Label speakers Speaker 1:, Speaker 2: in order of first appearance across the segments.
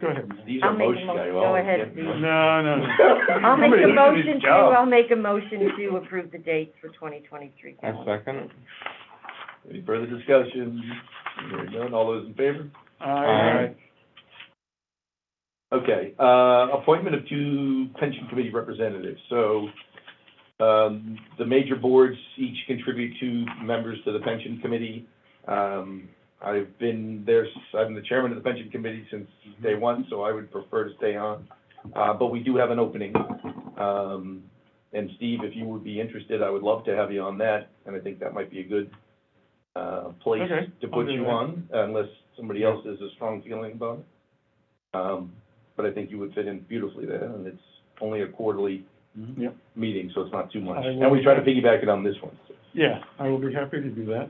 Speaker 1: Go ahead.
Speaker 2: These
Speaker 3: I'll
Speaker 2: are
Speaker 3: make a
Speaker 2: motion,
Speaker 3: mo-
Speaker 2: I
Speaker 3: go
Speaker 2: always
Speaker 3: ahead,
Speaker 2: get
Speaker 3: please.
Speaker 2: motion.
Speaker 1: No, no, no.
Speaker 3: I'll make
Speaker 1: Somebody
Speaker 3: a
Speaker 1: did his
Speaker 3: motion to,
Speaker 1: job.
Speaker 3: I'll make a motion to approve the dates for twenty twenty-three
Speaker 4: I
Speaker 3: calendar.
Speaker 4: second.
Speaker 2: Any further discussion? Hearing none, all those in favor?
Speaker 1: Aye.
Speaker 2: Okay, uh, appointment of two pension committee representatives. So, um, the major boards each contribute two members to the pension committee. Um, I've been there, s- I'm the chairman of the pension committee since day one, so I would prefer to stay on. Uh, but we do have an opening. Um, and Steve, if you would be interested, I would love to have you on that, and I think that might be a good, uh, place
Speaker 1: Okay,
Speaker 2: to
Speaker 1: I'll
Speaker 2: put
Speaker 1: do
Speaker 2: you
Speaker 1: that.
Speaker 2: on, unless somebody else has a strong feeling about it. Um, but I think you would fit in beautifully there, and it's only a quarterly
Speaker 1: Yep.
Speaker 2: meeting, so it's not too much.
Speaker 1: I will-
Speaker 2: And we try to piggyback it on this one,
Speaker 1: Yeah, I will be happy to do that.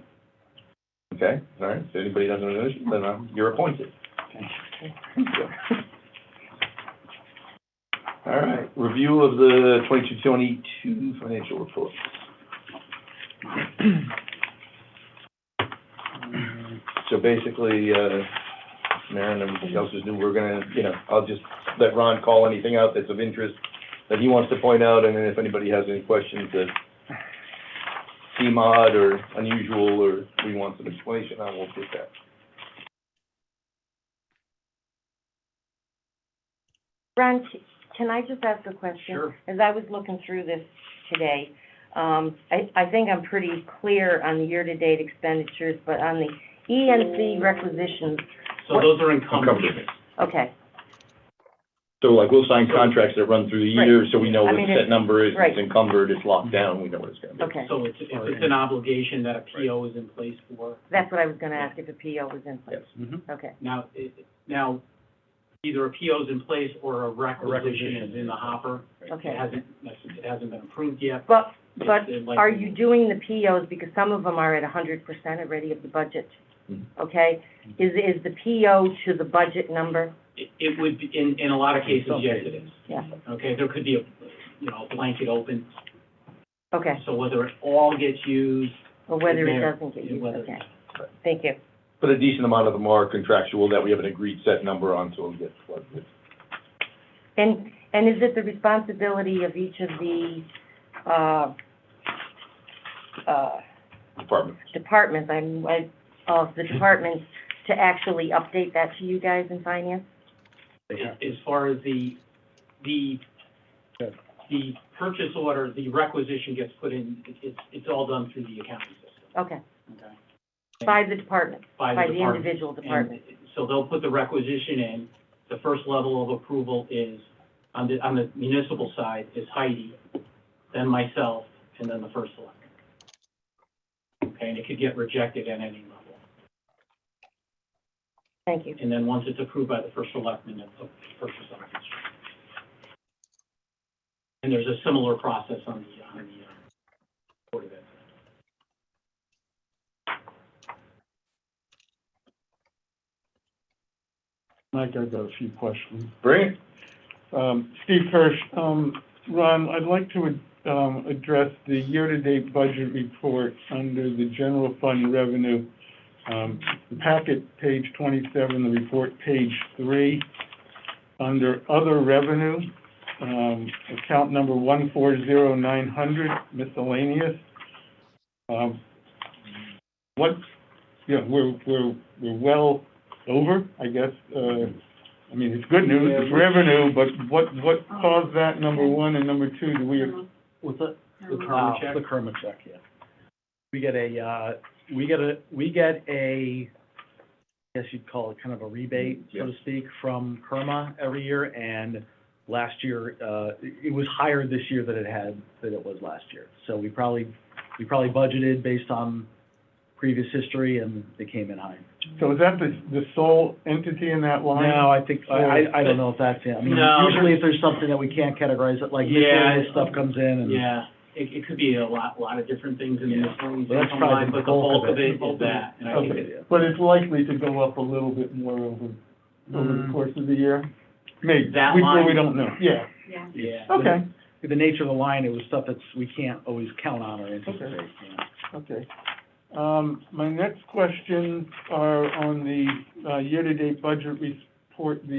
Speaker 2: okay? All right, if anybody doesn't know, then I'm- you're appointed. All right, review of the 22-22 financial report. So basically, uh, Maren and everybody else is new, we're gonna, you know, I'll just let Ron call anything out that's of interest that he wants to point out, and then if anybody has any questions that seem odd or unusual, or we want some explanation, I will get that.
Speaker 3: Ron, c- can I just ask a question?
Speaker 2: Sure.
Speaker 3: As I was looking through this today, um, I, I think I'm pretty clear on the year-to-date expenditures, but on the E and C requisitions,
Speaker 5: So those are encumbrances.
Speaker 2: Encumbrance.
Speaker 3: okay,
Speaker 2: So like, we'll sign contracts that run through the year, so we know
Speaker 3: I
Speaker 2: what
Speaker 3: mean,
Speaker 2: the
Speaker 3: it's-
Speaker 2: set number is,
Speaker 3: right.
Speaker 2: it's encumbered, it's locked down, we know what it's gonna be.
Speaker 3: okay.
Speaker 5: So it's, it's it's an obligation that a PO is in place for.
Speaker 3: That's what I was gonna ask, if a PO was in place.
Speaker 1: Mm-hmm.
Speaker 3: Okay,
Speaker 5: Now, it, now, either a PO is in place or a requisition is in the hopper. It
Speaker 3: okay.
Speaker 5: hasn't, it hasn't been approved yet.
Speaker 3: But,
Speaker 5: It's,
Speaker 3: but
Speaker 5: uh, like-
Speaker 3: are you doing the POs, because some of them are at hundred percent already of the budget,
Speaker 2: Mhm.
Speaker 3: okay? Is, is the PO to the budget number?
Speaker 5: It, it would, be in, in a lot of cases, yes, it is.
Speaker 3: Yeah,
Speaker 5: Okay, there could be a, you know, a blanket open.
Speaker 3: okay,
Speaker 5: So whether it all gets used,
Speaker 3: or whether it
Speaker 5: Mayor,
Speaker 3: doesn't get
Speaker 5: yeah,
Speaker 3: used,
Speaker 5: whether-
Speaker 3: okay. Thank you.
Speaker 2: But a decent amount of them are contractual, that we have an agreed set number on, so we'll get what it is.
Speaker 3: And, and is it the responsibility of each of the, uh, uh,
Speaker 2: department.
Speaker 3: departments, I'm, I, of the departments to actually update that to you guys in finance?
Speaker 5: as, as far as the, the,
Speaker 1: Okay.
Speaker 5: the purchase order, the requisition gets put in, it- it's, it's all done through the accounting system,
Speaker 3: Okay,
Speaker 5: okay?
Speaker 3: by the department,
Speaker 5: By
Speaker 3: by
Speaker 5: the
Speaker 3: the
Speaker 5: department.
Speaker 3: individual
Speaker 5: And
Speaker 3: department,
Speaker 5: so they'll put the requisition in. The first level of approval is, on the, on the municipal side, is Heidi, then myself, and then the first selectman. Okay, and it could get rejected at any level.
Speaker 3: thank you.
Speaker 5: And then once it's approved by the first selectman, it's a purchase order. And there's a similar process on the, on the, uh, Board of Ed.
Speaker 1: Mike, I've got a few questions.
Speaker 2: Brilliant.
Speaker 1: Um, Steve Kirsch, um, Ron, I'd like to, um, address the year-to-date budget report under the general fund revenue. Um, the packet, page twenty-seven, the report, page three. Under other revenue, um, account number one four zero nine hundred miscellaneous. Um, what, you know, we're, we're, we're well over, I guess, uh, I mean, it's good news, it's revenue, but what, what caused that, number one, and number two, do we,
Speaker 6: What's that?
Speaker 5: The karma check?
Speaker 6: The Kerma check, yeah. We get a, uh, we get a, we get a, I guess you'd call it kind of a rebate, so to speak, from Kerma every year, and last year, uh, it it was higher this year than it had, than it was last year. So we probably, we probably budgeted based on previous history, and they came in high.
Speaker 1: so is that the, the sole entity in that line?
Speaker 6: No, I think, I, I- I don't know if that's it. I mean,
Speaker 5: No.
Speaker 6: usually if there's something that we can't categorize it, like this
Speaker 5: Yeah.
Speaker 6: year, this stuff comes in, and.
Speaker 5: Yeah, it, it could be a lot, lot of different things in the
Speaker 6: Hmm. Yeah.
Speaker 5: miscellaneous
Speaker 6: Well, that's
Speaker 5: income
Speaker 6: probably
Speaker 5: line,
Speaker 6: the
Speaker 5: but the
Speaker 6: bulk
Speaker 5: bulk
Speaker 6: of
Speaker 5: of it
Speaker 6: it.
Speaker 5: is that, and I think
Speaker 1: Okay,
Speaker 5: it-
Speaker 1: but it's likely to go up a little bit more over, over the course of the year? Maybe, we,
Speaker 5: Mm-hmm. That
Speaker 1: well, we
Speaker 5: line?
Speaker 1: don't know, yeah,
Speaker 5: yeah.
Speaker 1: okay,
Speaker 6: the nature of the line, it was stuff that's, we can't always count on or anticipate,
Speaker 1: Okay.
Speaker 6: you know.
Speaker 5: Mm-hmm.
Speaker 1: okay. Um, my next questions are on the, uh, year-to-date budget report, the